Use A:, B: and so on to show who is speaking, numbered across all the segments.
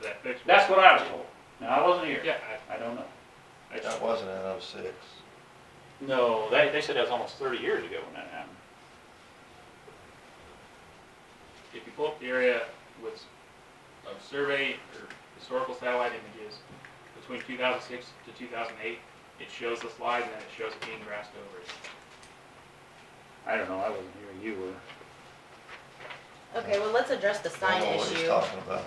A: to that fixed. one.
B: That's what I was told. Now, I wasn't here.
A: Yeah,
B: I don't know.
A: I, I
C: That
A: just,
C: wasn't in oh six.
B: No, they, they said that was almost thirty years ago when that happened.
A: if you pull up the area with, s- of survey or historical satellite images between two thousand six to two thousand eight, it shows the slide and then it shows it being grassed over.
B: I don't know, I wasn't here, you were.
D: Okay, well, let's address the
C: I
D: sign
C: don't know what he's
D: issue.
C: talking about.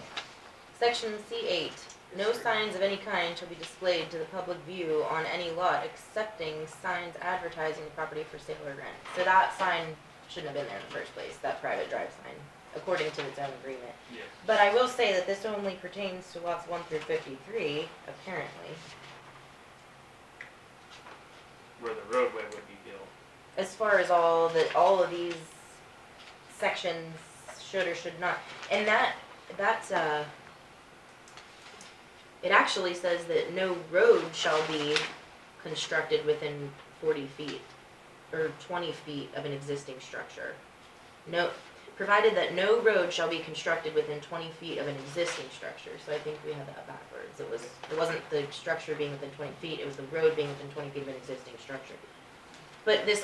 D: Section C eight, no signs of any kind shall be displayed to the public view on any lot excepting signs advertising the property for sale or rent. So that sign shouldn't have been there in the first place, that private drive sign, according to its own agreement.
A: Yes.
D: But I will say that this only pertains to lots one through fifty-three, apparently,
A: Where the roadway would be built.
D: as far as all the, all of these sections should or should not. And that, that's, uh, it actually says that no road shall be constructed within forty feet or twenty feet of an existing structure. No, provided that no road shall be constructed within twenty feet of an existing structure, so I think we had that backwards. It was, it wasn't the structure being within twenty feet, it was the road being within twenty feet of an existing structure. But this,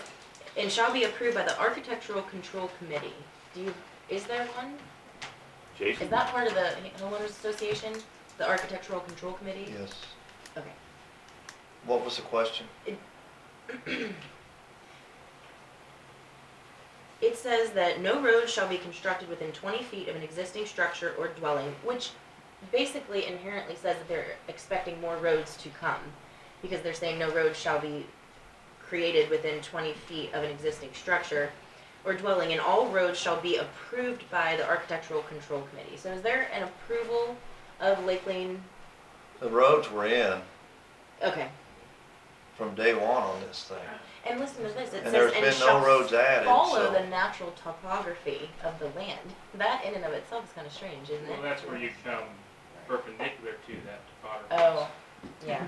D: and shall be approved by the Architectural Control Committee. Do you, is there one? Is
B: Jason?
D: that part of the homeowners association, the Architectural Control Committee?
C: Yes.
D: Okay.
C: What was the question?
D: It says that no road shall be constructed within twenty feet of an existing structure or dwelling, which basically inherently says that they're expecting more roads to come. Because they're saying no road shall be created within twenty feet of an existing structure or dwelling, and all roads shall be approved by the Architectural Control Committee. So is there an approval of Lake Lane?
C: The roads were in
D: Okay,
C: from day one on this thing.
D: and listen to this, it
C: And
D: says,
C: there's
D: and
C: been no roads
D: shall
C: added,
D: follow the
C: so.
D: natural topography of the land. That in and of itself is kinda strange, isn't it?
A: Well, that's where you come perpendicular to that topography.
D: Oh, yeah,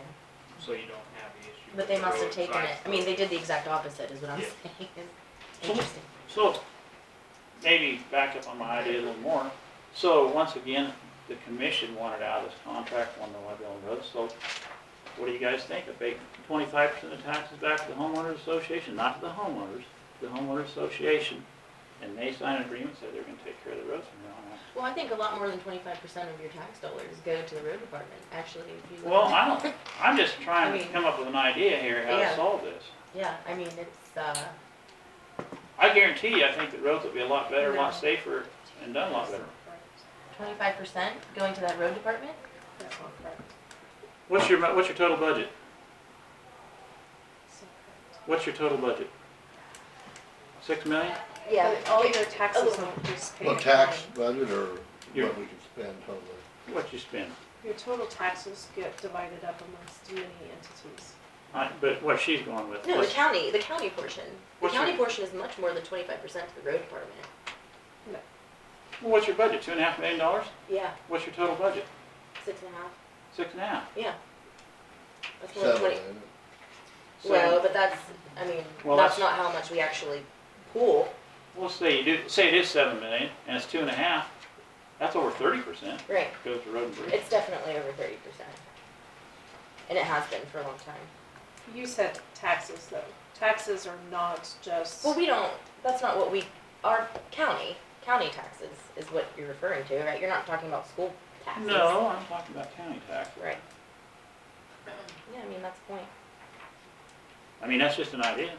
A: So you don't have the issue.
D: but they
A: with the
D: must have
A: road
D: taken
A: signs.
D: it, I mean, they did the exact opposite, is what I'm
A: Yeah.
D: saying.
B: So-
D: Interesting.
B: So, maybe back up on my idea a little more. So, once again, the commission wanted out of this contract, wanted to live on the road, so what do you guys think? Abate twenty-five percent of taxes back to the homeowners association, not to the homeowners, the homeowners association. And they signed an agreement, said they're gonna take care of the roads from now on.
D: Well, I think a lot more than twenty-five percent of your tax dollars go to the road department, actually, if you.
B: Well, I don't, I'm just trying
D: I
B: to
D: mean-
B: come up with an idea here how
D: Yeah.
B: to solve this.
D: Yeah, I mean, it's, uh,
B: I guarantee you, I think the roads will be a lot better, a lot
D: No.
B: safer, and done a lot better.
D: twenty-five percent going to that road department?
B: What's your, mu- what's your total budget? What's your total budget? Six million?
D: Yeah.
E: All your taxes
D: Oh.
E: don't just pay.
F: Well, tax budget or
B: Yeah.
F: what we can spend totally?
B: What you spend?
E: Your total taxes get divided up amongst many entities.
B: I, but what she's going with,
D: No, the
B: what's-
D: county, the county portion. The
B: What's
D: county
B: your-
D: portion is much more than twenty-five percent to the road department.
B: well, what's your budget? Two and a half million dollars?
D: Yeah,
B: What's your total budget?
D: six and a half,
B: Six and a half?
D: yeah. That's more than
F: Seven,
D: twenty,
F: isn't it?
D: well,
B: So,
D: but that's, I mean,
B: Well,
D: that's
B: that's-
D: not how much we actually pool.
B: we'll say you do, say it is seven million and it's two and a half, that's over thirty percent
D: Right.
B: goes to road and bridge.
D: It's definitely over thirty percent. And it has been for a long time.
E: You said taxes though. Taxes are not just,
D: Well, we don't, that's not what we, our county, county taxes is what you're referring to, right? You're not talking about school taxes.
B: No, I'm talking about county tax.
D: Right. Yeah, I mean, that's the point.
B: I mean, that's just an idea.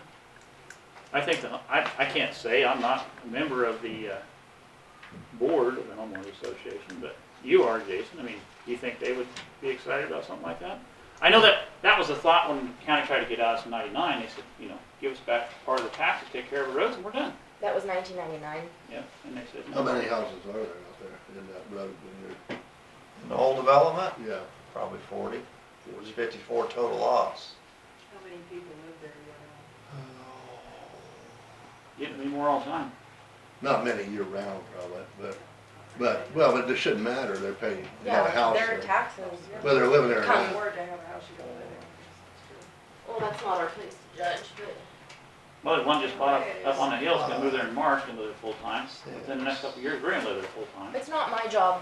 B: I think, the I, I can't say, I'm not a member of the, uh, board of the homeowners association, but you are, Jason, I mean, do you think they would be excited about something like that? I know that, that was the thought when the county tried to get out of ninety-nine, they said, you know, give us back part of the taxes, take care of the roads, and we're done.
D: That was nineteen ninety-nine.
B: Yeah, and they said,
F: How
B: no.
F: many houses are there out there in that road when
C: In the whole development,
F: you're, yeah,
C: probably forty. It was fifty-four total lots.
E: how many people live there, you
F: Oh.
B: Getting me more all the time.
F: not many year round probably, but, but, well, it just shouldn't matter, they're paying, they got
D: Yeah,
F: a house
D: their
F: there.
D: taxes.
F: Whether they're living there or
D: Come.
F: not.
D: Can't
E: afford to have a house you don't live
D: Well, that's not our place to judge, but.
B: Well, the one just bought up, up on the hill, is gonna move there in March, gonna live there full time, within the next couple of years, we're gonna live there full time.
D: It's not my job